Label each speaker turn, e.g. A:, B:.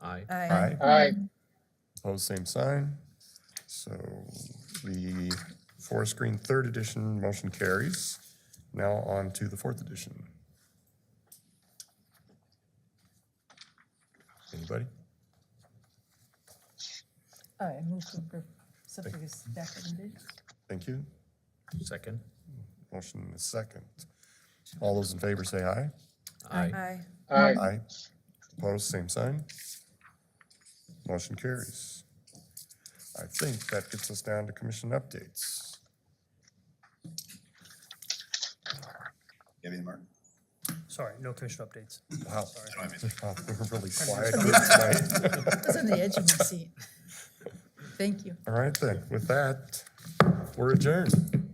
A: Aye.
B: Aye.
C: Aye.
B: Opposed, same sign. So the Forest Green Third Edition motion carries. Now on to the Fourth Edition. Anybody?
D: I move to approve something is seconded.
B: Thank you.
A: Second?
B: Motion is second. All those in favor say aye.
A: Aye.
C: Aye.
D: Aye.
B: Aye. Opposed, same sign. Motion carries. I think that gets us down to commission updates.
E: Give me the mark.
F: Sorry, no commission updates.
B: Wow.
E: I mean.
B: Wow, We're really quiet here tonight.
D: I was on the edge of my seat. Thank you.
B: All right then, with that, we're adjourned.